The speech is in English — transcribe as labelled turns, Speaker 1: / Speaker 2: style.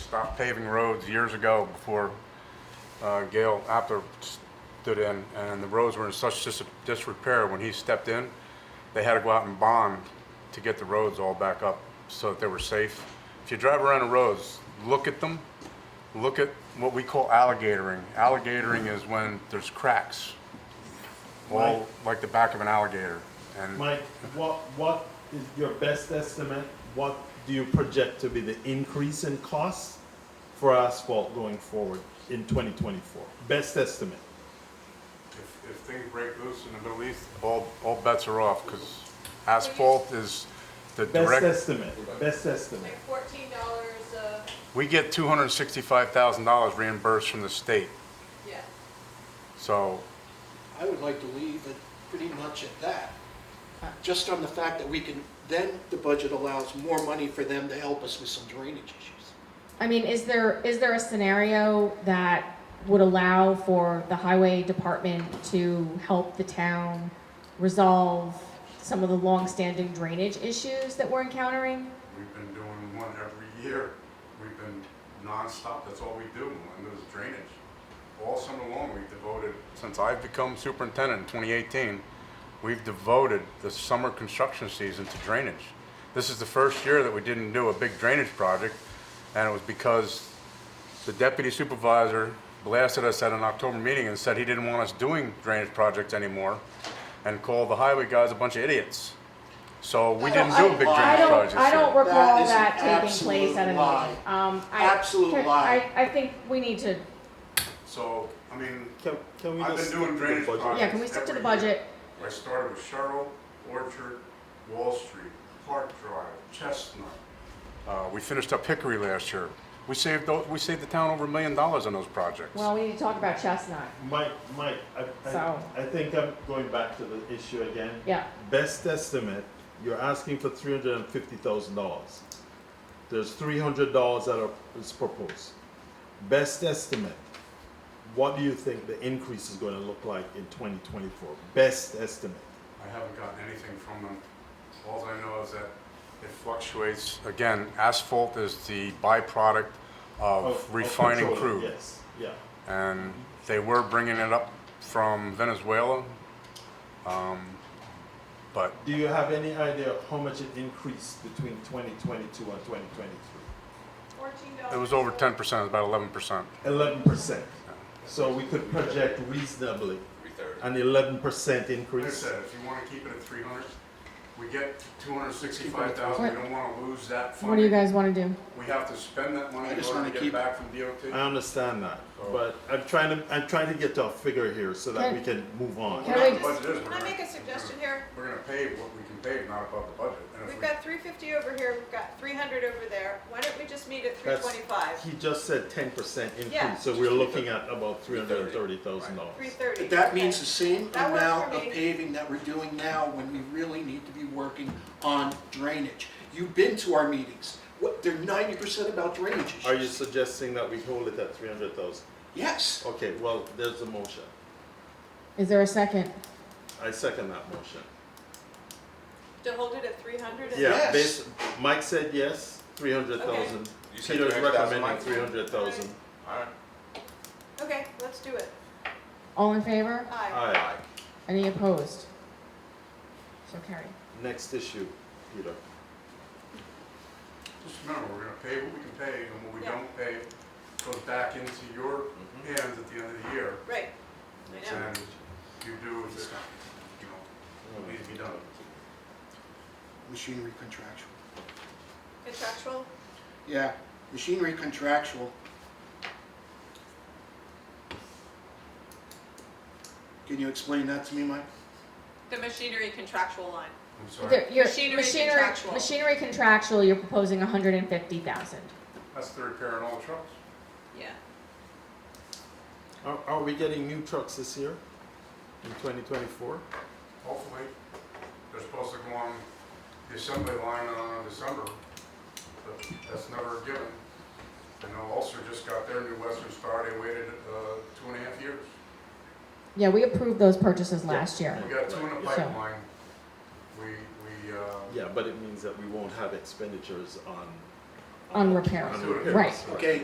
Speaker 1: stopped paving roads years ago before uh, Gail Apter stood in, and the roads were in such dis- disrepair when he stepped in, they had to go out and bond to get the roads all back up so that they were safe. If you drive around the roads, look at them, look at what we call alligatoring. Alligatoring is when there's cracks, all
Speaker 2: Right.
Speaker 1: like the back of an alligator. And
Speaker 2: Mike, what, what is your best estimate? What do you project to be the increase in costs for asphalt going forward in 2024? Best estimate.
Speaker 1: If, if things break loose in the Middle East, all, all bets are off, because asphalt is the
Speaker 2: Best
Speaker 1: direct,
Speaker 2: estimate, best estimate.
Speaker 3: Like fourteen dollars, uh,
Speaker 1: we get two hundred and sixty-five thousand dollars reimbursed from the state,
Speaker 3: yeah.
Speaker 1: so,
Speaker 4: I would like to leave it pretty much at that, just on the fact that we can, then the budget allows more money for them to help us with some drainage issues.
Speaker 5: I mean, is there, is there a scenario that would allow for the highway department to help the town resolve some of the longstanding drainage issues that we're encountering?
Speaker 1: we've been doing one every year. We've been nonstop, that's all we do, and there's drainage. All summer long, we've devoted, since I've become superintendent in twenty eighteen, we've devoted the summer construction season to drainage. This is the first year that we didn't do a big drainage project, and it was because the deputy supervisor blasted us at an October meeting and said he didn't want us doing drainage projects anymore, and called the highway guys a bunch of idiots. So we didn't do a big drainage
Speaker 5: I
Speaker 1: project.
Speaker 5: don't, I don't
Speaker 4: That
Speaker 5: recall
Speaker 4: is an
Speaker 5: that taking place at a
Speaker 4: absolute lie.
Speaker 5: meeting. Um, I-
Speaker 4: Absolute
Speaker 5: can-
Speaker 4: lie.
Speaker 5: I, I think we need to,
Speaker 1: So, I mean,
Speaker 2: Can, can we
Speaker 1: I've
Speaker 2: just
Speaker 1: been doing
Speaker 2: stick to the
Speaker 1: drainage
Speaker 2: budget?
Speaker 1: projects.
Speaker 5: yeah, can we stick to the
Speaker 1: every year.
Speaker 5: budget?
Speaker 1: I started with Sherrill, Orchard, Wall Street, Park Drive, Chestnut. Uh, we finished up Hickory last year. We saved, tho- we saved the town over a million dollars on those projects.
Speaker 5: Well, we need to talk about Chestnut.
Speaker 2: Mike, Mike, I, I,
Speaker 5: So-
Speaker 2: I think I'm going back to the issue again.
Speaker 5: Yeah.
Speaker 2: Best estimate, you're asking for three hundred and fifty thousand dollars. There's three hundred dollars that are, is proposed. Best estimate, what do you think the increase is gonna look like in twenty twenty-four? Best estimate.
Speaker 1: I haven't gotten anything from them. All I know is that it fluctuates. Again, asphalt is the byproduct
Speaker 2: of-
Speaker 1: of
Speaker 2: of
Speaker 1: refining
Speaker 2: petroleum,
Speaker 1: crude.
Speaker 2: Yes, yeah.
Speaker 1: and they were bringing it up from Venezuela. Um, But
Speaker 2: Do you have any idea how much it increased between twenty twenty-two and twenty twenty-three?
Speaker 3: Fourteen dollars.
Speaker 1: it was over ten percent, about eleven percent.
Speaker 2: Eleven percent. So we could project reasonably an eleven percent
Speaker 1: Like I
Speaker 2: increase.
Speaker 1: said, if you want to keep it at three hundred, we get two hundred sixty-five thousand, we don't want to lose that
Speaker 5: What do
Speaker 1: funding.
Speaker 5: you guys wanna do?
Speaker 1: We have to spend that money
Speaker 4: I
Speaker 1: in
Speaker 4: just
Speaker 1: order
Speaker 4: wanna
Speaker 1: to get
Speaker 4: keep-
Speaker 1: back from
Speaker 2: I
Speaker 1: DOT.
Speaker 2: understand that,
Speaker 1: So-
Speaker 2: but I'm trying to, I'm trying to get to a figure here so that
Speaker 5: Can-
Speaker 2: we can move on.
Speaker 5: Can
Speaker 1: Not
Speaker 5: we
Speaker 1: the
Speaker 3: just-
Speaker 1: budget is,
Speaker 3: Can
Speaker 1: we're
Speaker 3: I
Speaker 1: gonna-
Speaker 3: make a suggestion here?
Speaker 1: We're gonna pave what we can pave, not above the budget. And if
Speaker 3: We've
Speaker 1: we-
Speaker 3: got three fifty over here, we've got three hundred over there. Why don't we just meet at three
Speaker 2: That's-
Speaker 3: twenty-five,
Speaker 2: He just said ten percent
Speaker 3: Yeah.
Speaker 2: increase, so we're looking at about three hundred and thirty thousand
Speaker 3: three
Speaker 2: dollars.
Speaker 3: thirty?
Speaker 4: But that means the same
Speaker 3: That works
Speaker 4: amount
Speaker 3: for
Speaker 4: of
Speaker 3: me.
Speaker 4: paving that we're doing now when we really need to be working on drainage. You've been to our meetings, what, they're ninety percent about drainage
Speaker 2: Are you
Speaker 4: issues.
Speaker 2: suggesting that we hold it at three hundred thousand?
Speaker 4: Yes,
Speaker 2: Okay, well, there's a motion.
Speaker 5: Is there a second?
Speaker 2: I second that motion.
Speaker 3: To hold it at three hundred?
Speaker 2: Yeah,
Speaker 4: Yes.
Speaker 2: bas Mike said yes, three hundred thousand.
Speaker 6: You said
Speaker 2: Peter's
Speaker 6: 300,000,
Speaker 2: recommending
Speaker 6: Mike?
Speaker 2: three hundred thousand.
Speaker 6: Alright.
Speaker 3: Okay, let's do it.
Speaker 5: All in favor?
Speaker 3: Aye.
Speaker 2: Aye,
Speaker 5: Any opposed? So carried.
Speaker 2: next issue, Peter.
Speaker 1: Just remember, we're gonna pave what we can pave, and what we
Speaker 3: Yeah.
Speaker 1: don't pave goes back into your
Speaker 2: Mm-hmm.
Speaker 1: hands at the end of the year.
Speaker 3: Right. I know.
Speaker 1: And you do if it's, you know, what needs to be done.
Speaker 4: machinery contractual.
Speaker 3: Contractual?
Speaker 4: Yeah, machinery contractual. Can you explain that to me, Mike?
Speaker 3: The machinery contractual line.
Speaker 1: I'm sorry,
Speaker 5: There- your-
Speaker 3: Machinery
Speaker 5: machinery-
Speaker 3: contractual.
Speaker 5: Machinery contractual, you're proposing hundred and fifty thousand.
Speaker 1: that's the repair on all trucks.
Speaker 3: Yeah.
Speaker 2: Are, are we getting new trucks this year in twenty twenty-four?
Speaker 1: Hopefully, they're supposed to go on the assembly line on uh, December, but that's never a given. I know Ulster just got their new Western Star, they waited, uh, two and a half years.
Speaker 5: Yeah, we approved those purchases last year.
Speaker 1: We got two in the
Speaker 5: Right. So-
Speaker 1: pipeline. We, we, uh,
Speaker 2: Yeah, but it means that we won't have expenditures on.
Speaker 5: On repair.
Speaker 2: on repair.
Speaker 5: Right.
Speaker 4: Okay,